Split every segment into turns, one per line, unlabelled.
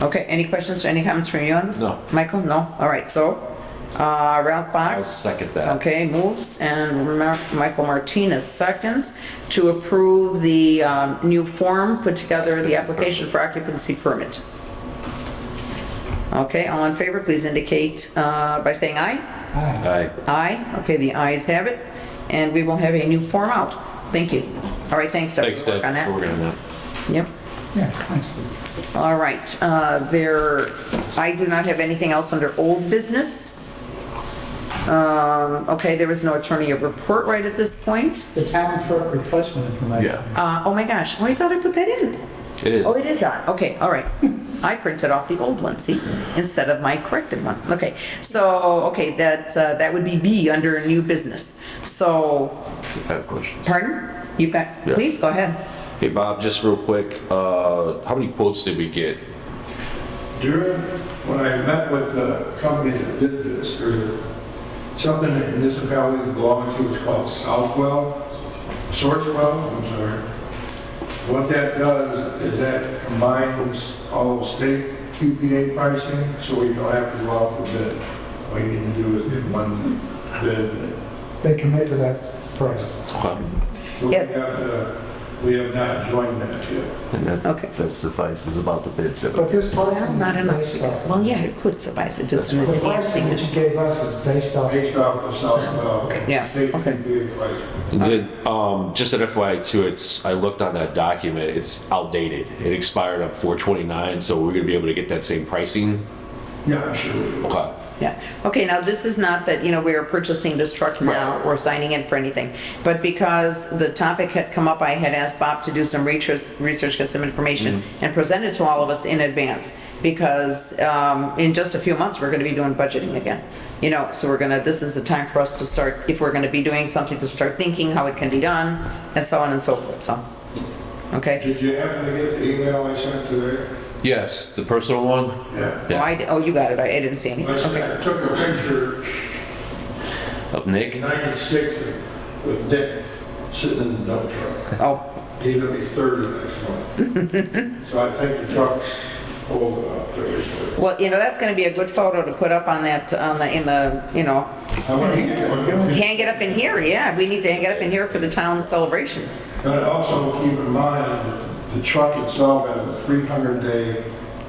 Okay, any questions or any comments from you on this?
No.
Michael, no? All right, so, uh, Ralph Box?
I'll second that.
Okay, moves, and Mar- Michael Martinez seconds to approve the um, new form put together, the application for occupancy permit. Okay, all in favor, please indicate uh, by saying aye.
Aye.
Aye, okay, the ayes have it, and we will have a new form out. Thank you. All right, thanks, Doug.
Thanks,
We'll work
Deb, for working on that.
that. Yep.
Yeah, thanks.
All right, uh, there, I do not have anything else under old business. Um, Okay, there is no attorney report right at this point.
The town clerk replacement information.
Yeah,
Uh, Oh my gosh, oh, I thought I put that in.
it is.
Oh, it is on, okay, all right. I printed off the old one, see, instead of my corrected one. Okay, so, okay, that, uh, that would be B under new business. So,
I have questions.
pardon? You've got,
Yeah.
please, go ahead.
Hey, Bob, just real quick, uh, how many quotes did we get?
During, when I met with the company that did this, there's something that municipalities belong to, it's called Southwell, Sourcewell, I'm sorry. What that does is that combines all of state QPA pricing, so we don't have to go out for bid. All you need to do is get one bid.
They commit to that price.
We
Yes.
have, uh, we have not joined that yet.
And that's,
Okay.
that suffices about the bids that we
But this
Well,
pricing
not
is
enough.
based off.
Well, yeah, it could suffice if it's an
The
enhancing.
pricing that you gave us is based off.
Based off of Southwell,
Yeah,
state
okay.
QPA pricing.
Did, um, just an FYI too, it's, I looked on that document, it's outdated. It expired on four twenty-nine, so we're gonna be able to get that same pricing?
Yeah, I'm sure. we will.
Okay.
Yeah, okay, now this is not that, you know, we are purchasing this truck now or signing in for anything, but because the topic had come up, I had asked Bob to do some research, research, get some information, and present it to all of us in advance, because um, in just a few months, we're gonna be doing budgeting again. You know, so we're gonna, this is the time for us to start, if we're gonna be doing something, to start thinking how it can be done, and so on and so forth, so. Okay?
Did you happen to get the email I sent today?
Yes, the personal one?
Yeah.
Oh, I, oh, you got it, I I didn't see
I
anything, okay.
s- I took a picture
Of Nick?
in ninety-six with Dick sitting in the dump truck.
Oh,
He's gonna be thirty next month. So I think the truck's old enough to.
Well, you know, that's gonna be a good photo to put up on that, on the, in the, you know,
I want to get one.
hang it up in here, yeah, we need to hang it up in here for the town celebration.
But also keep in mind, the truck itself has a three hundred day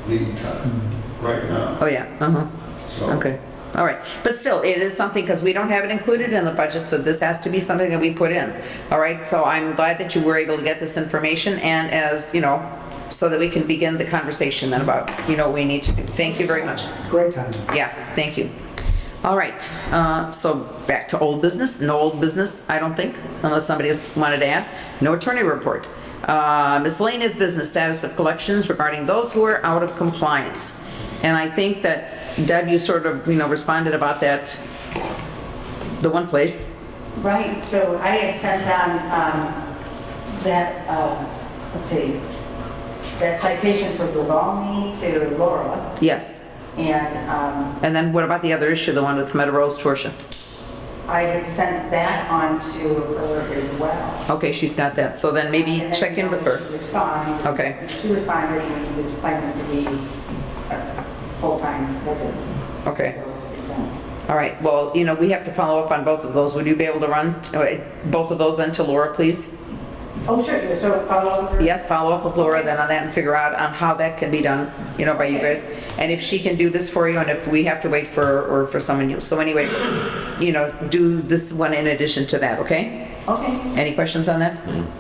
lead time right now.
Oh, yeah, uh-huh,
So
okay, all right. But still, it is something, because we don't have it included in the budget, so this has to be something that we put in. All right, so I'm glad that you were able to get this information, and as, you know, so that we can begin the conversation then about, you know, what we need to do. Thank you very much.
Great timing.
Yeah, thank you. All right, uh, so back to old business, no old business, I don't think, unless somebody else wanted to add. No attorney report. Uh, Miscellaneous business status of collections regarding those who are out of compliance. And I think that Deb, you sort of, you know, responded about that, the one place.
Right, so I had sent on um, that, um, let's see, that citation for Grivalny to Laura,
Yes,
and um,
and then what about the other issue, the one with Meadow Rose Torsia?
I had sent that on to her as well.
Okay, she's got that, so then maybe
And then
check in with her.
she responded.
Okay.
She responded and was claiming to be a full-time resident.
Okay.
So it's on.
All right, well, you know, we have to follow up on both of those. Would you be able to run uh, both of those then to Laura, please?
Oh, sure, so follow up with her.
Yes, follow up with Laura then on that and figure out on how that can be done, you know, by you guys. And if she can do this for you and if we have to wait for, or for someone new. So anyway, you know, do this one in addition to that, okay?
Okay,
Any questions on that?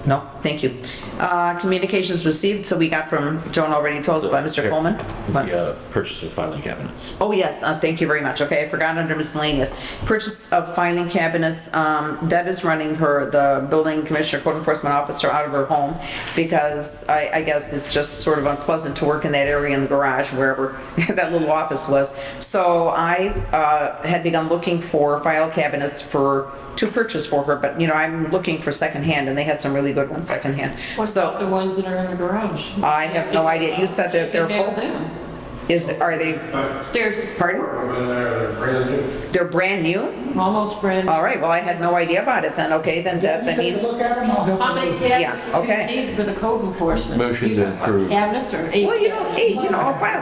No, thank you. Uh, Communications received, so we got from, Joan already told us by Mr. Coleman. What?
The, uh, purchase of filing cabinets.
Oh, yes, uh, thank you very much. Okay, I forgot under miscellaneous. Purchase of filing cabinets. Um, Deb is running her, the building commissioner, code enforcement officer out of her home because I, I guess it's just sort of unpleasant to work in that area in the garage, wherever that little office was. So I, uh, had begun looking for file cabinets for, to purchase for her, but you know, I'm looking for secondhand and they had some really good ones secondhand.
What about
So
the ones that are in the garage?
I have no idea. You said that they're
They're
full.
them.
Is, are they,
They're
pardon?
I'm in there, they're brand new.
They're brand new?
almost brand.
All right, well, I had no idea about it then, okay, then that that
Take
needs,
a look at them, I'll help
How
you.
many
Yeah,
cabinets do
okay.
you need for the code enforcement?
Motion to
You talking about
approve.
Cabinets or eight?
well, you know, hey, you know, I'll file